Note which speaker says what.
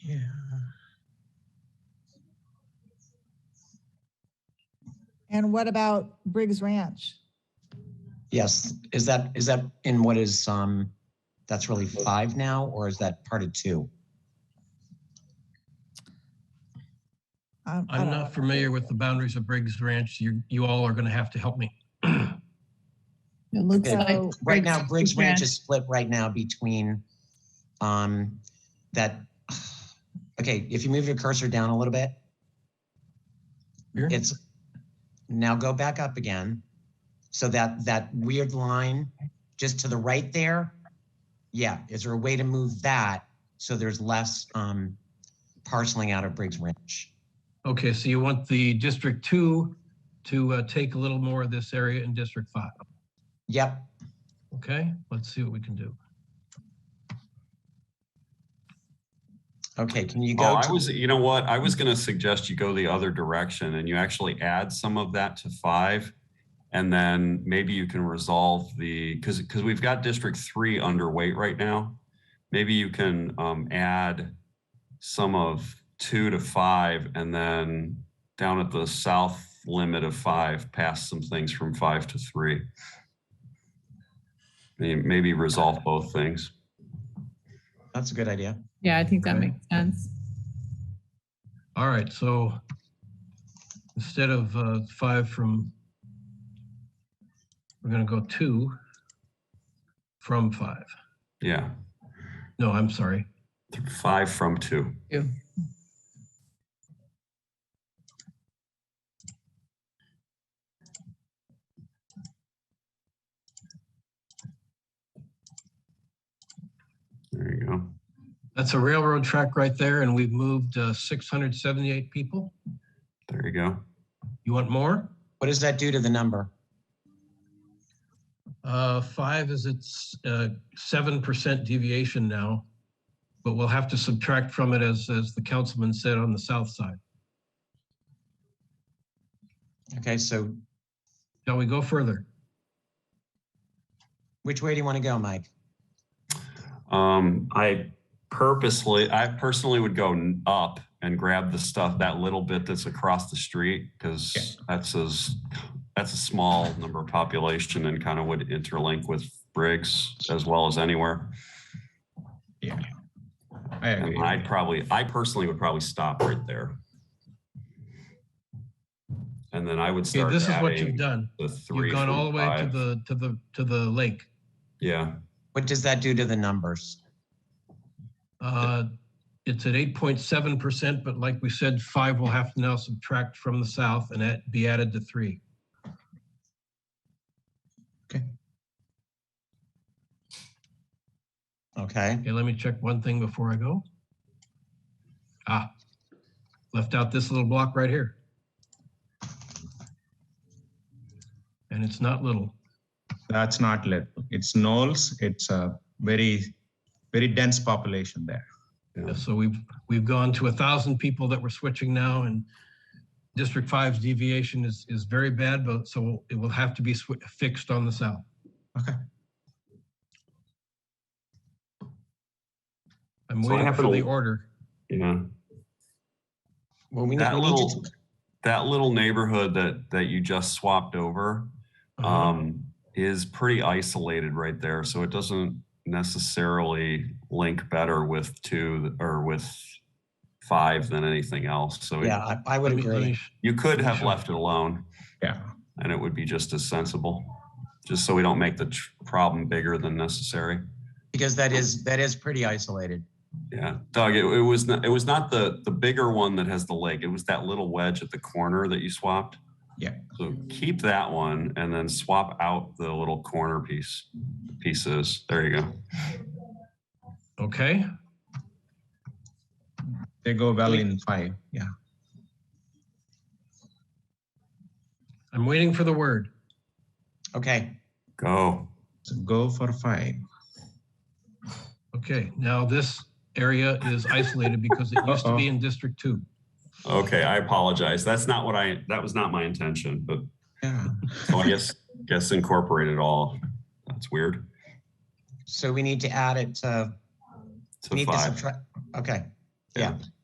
Speaker 1: And what about Briggs Ranch?
Speaker 2: Yes, is that, is that in what is, um, that's really five now, or is that part of two?
Speaker 1: Um, I
Speaker 3: I'm
Speaker 1: don't
Speaker 3: not
Speaker 1: know.
Speaker 3: familiar with the boundaries of Briggs Ranch. You, you all are going to have to help me.
Speaker 4: It looks
Speaker 2: Okay.
Speaker 4: like.
Speaker 2: Right now, Briggs Ranch is split right now between, um, that, okay, if you move your cursor down a little bit,
Speaker 3: Here?
Speaker 2: it's, now go back up again. So that, that weird line just to the right there, yeah, is there a way to move that so there's less, um, parceling out of Briggs Ranch?
Speaker 3: Okay, so you want the District Two to uh, take a little more of this area in District Five.
Speaker 2: Yep,
Speaker 3: Okay, let's see what we can do.
Speaker 2: okay, can you
Speaker 5: Oh,
Speaker 2: go?
Speaker 5: I
Speaker 2: to-
Speaker 5: was, you know what? I was going to suggest you go the other direction and you actually add some of that to five. And then maybe you can resolve the, because, because we've got District Three underweight right now. Maybe you can um, add some of two to five and then down at the south limit of five, pass some things from five to three. May- Maybe resolve both things.
Speaker 2: That's a good idea.
Speaker 4: Yeah, I think that
Speaker 3: Okay.
Speaker 4: makes sense.
Speaker 3: All right, so instead of uh, five from, we're going to go two from five.
Speaker 5: Yeah,
Speaker 3: No, I'm sorry.
Speaker 5: five from two. There you go.
Speaker 3: That's a railroad track right there, and we've moved uh, 678 people.
Speaker 5: There you go.
Speaker 3: You want more?
Speaker 2: What does that do to the number?
Speaker 3: Uh, five is it's, uh, seven percent deviation now. But we'll have to subtract from it as, as the councilman said on the south side.
Speaker 2: Okay, so
Speaker 3: Shall we go further?
Speaker 2: which way do you want to go, Mike?
Speaker 5: Um, I purposely, I personally would go n- up and grab the stuff, that little bit that's across the street, because that's as, that's a small number of population and kind of would interlink with Briggs as well as anywhere.
Speaker 6: I agree.
Speaker 5: And I'd probably, I personally would probably stop right there. And then I would
Speaker 3: Okay,
Speaker 5: start
Speaker 3: this is what you've
Speaker 5: adding
Speaker 3: done.
Speaker 5: the three.
Speaker 3: You've gone
Speaker 5: from
Speaker 3: all the way to
Speaker 5: five.
Speaker 3: the, to the, to the lake.
Speaker 5: Yeah,
Speaker 2: What does that do to the numbers?
Speaker 3: Uh, it's at eight point seven percent, but like we said, five will have to now subtract from the south and that be added to three.
Speaker 2: Okay,
Speaker 3: Okay, let me check one thing before I go. Ah, left out this little block right here. And it's not little.
Speaker 6: That's not lit. It's Knowles. It's a very, very dense population there.
Speaker 3: So we've, we've gone to a thousand people that we're switching now and District Five's deviation is, is very bad, but so it will have to be swi- fixed on the south.
Speaker 6: Okay.
Speaker 3: I'm
Speaker 5: So I
Speaker 3: waiting
Speaker 5: have
Speaker 3: for
Speaker 5: to-
Speaker 3: the order.
Speaker 5: yeah.
Speaker 2: well, we need,
Speaker 5: That
Speaker 2: we need
Speaker 5: little,
Speaker 2: to,
Speaker 5: that little neighborhood that, that you just swapped over
Speaker 3: Uh-huh.
Speaker 5: um, is pretty isolated right there. So it doesn't necessarily link better with two or with five than anything else. So it-
Speaker 2: yeah, I- I would
Speaker 3: Let me- let me
Speaker 2: agree.
Speaker 3: sh-
Speaker 5: you could have
Speaker 3: Sure.
Speaker 5: left it alone
Speaker 6: Yeah.
Speaker 5: and it would be just as sensible, just so we don't make the tr- problem bigger than necessary.
Speaker 2: Because that is, that is pretty isolated.
Speaker 5: Yeah, Doug, it, it was not, it was not the, the bigger one that has the lake. It was that little wedge at the corner that you swapped.
Speaker 6: Yeah.
Speaker 5: So keep that one and then swap out the little corner piece, pieces. There you go.
Speaker 3: Okay,
Speaker 6: They go well in five. Yeah.
Speaker 3: I'm waiting for the word.
Speaker 2: Okay,
Speaker 5: Go.
Speaker 6: So go for five.
Speaker 3: Okay, now this area is isolated because it used to be
Speaker 6: Uh-oh.
Speaker 3: in District Two.
Speaker 5: Okay, I apologize. That's not what I, that was not my intention, but
Speaker 6: Yeah.
Speaker 5: so I guess, guess incorporate it all. That's weird.
Speaker 2: so we need to add it to,
Speaker 5: To
Speaker 2: we need to
Speaker 5: five.
Speaker 2: subtract, okay.